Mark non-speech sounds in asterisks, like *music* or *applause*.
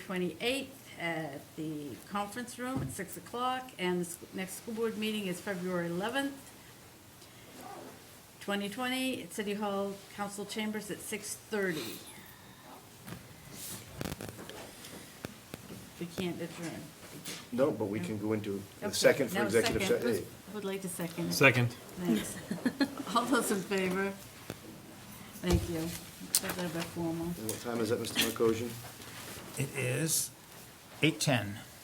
28th at the conference room at 6 o'clock, and the sc- next school board meeting is February 11th, 2020, at City Hall Council Chambers at 6:30. We can't adjourn. No, but we can go into the Okay, second for now executive second. session. Who's- Would like to second it. Second. Thanks. *laughs* All those in favor? Thank you. That's a bit formal. And what time is that, Mr. Markosian? It is eight ten.